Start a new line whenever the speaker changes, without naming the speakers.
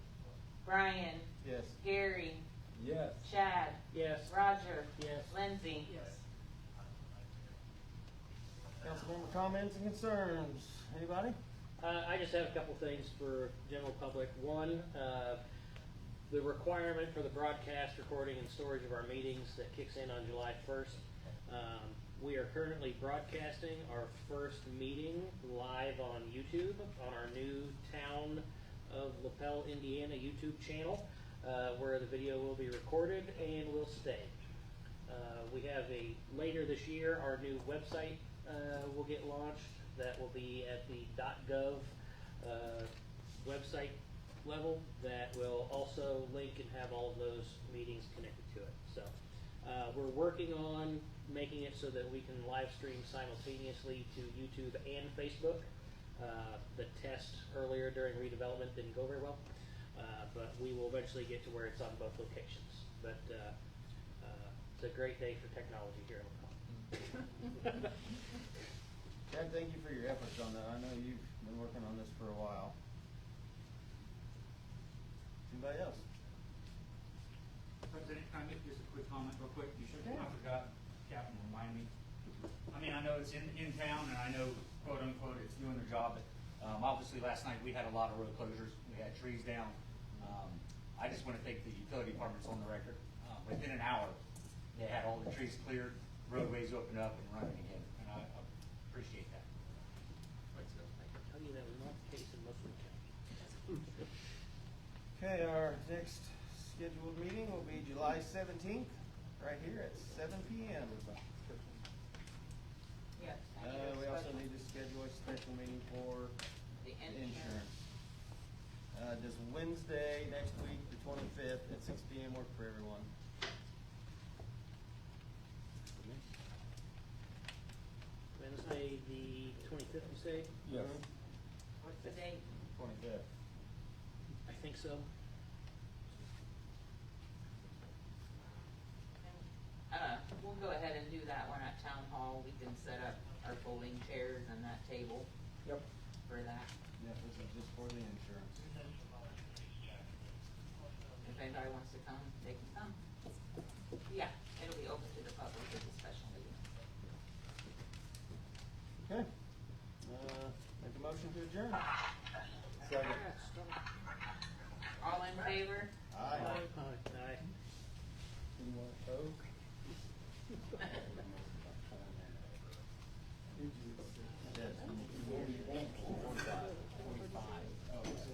Brian,
Yes.
Gary,
Yes.
Chad,
Yes.
Roger,
Yes.
Lindsay.
Yes.
Councilmember comments and concerns, anybody?
Uh, I just have a couple things for general public. One, uh, the requirement for the broadcast, recording, and storage of our meetings that kicks in on July first. Um, we are currently broadcasting our first meeting live on YouTube on our new town of LaPel, Indiana YouTube channel, uh, where the video will be recorded and will stay. Uh, we have a later this year our new website uh, will get launched. That will be at the .gov uh, website level. That will also link and have all of those meetings connected to it. So uh, we're working on making it so that we can live stream simultaneously to YouTube and Facebook. Uh, the test earlier during redevelopment didn't go very well, uh, but we will eventually get to where it's on both locations. But uh, uh, It's a great day for technology here in Lacombe.
Chad, thank you for your efforts on that, I know you've been working on this for a while. Anybody else?
President, can I make just a quick comment real quick? You should,
Yeah.
I forgot, Captain, remind me. I mean, I know it's in, in town and I know quote unquote it's doing their job, but, um, obviously last night we had a lot of road closures. We had trees down. Um, I just want to thank the utility departments on the record. Uh, within an hour, they had all the trees cleared, roadways opened up and running again, and I I appreciate that.
I can tell you that was not the case in Muslim County.
Okay, our next scheduled meeting will be July seventeenth, right here at seven P M.
Yes.
Uh, we also need to schedule a special meeting for
The
insurance. Uh, does Wednesday next week, the twenty-fifth, at six P M work for everyone?
Wednesday, the twenty-fifth, you say?
Yes.
What's the date?
Mm-hmm. Twenty-fifth.
I think so.
Uh, we'll go ahead and do that one at town hall. We can set up our folding chairs and that table
Yep.
for that.
Yeah, this is just for the insurance.
If anybody wants to come, they can come. Yeah, it'll be open to the public as a special meeting.
Okay. Uh, make a motion to adjourn.
Yeah,
Second.
stop.
All in favor?
Aye.
Aye.
Anyone opposed?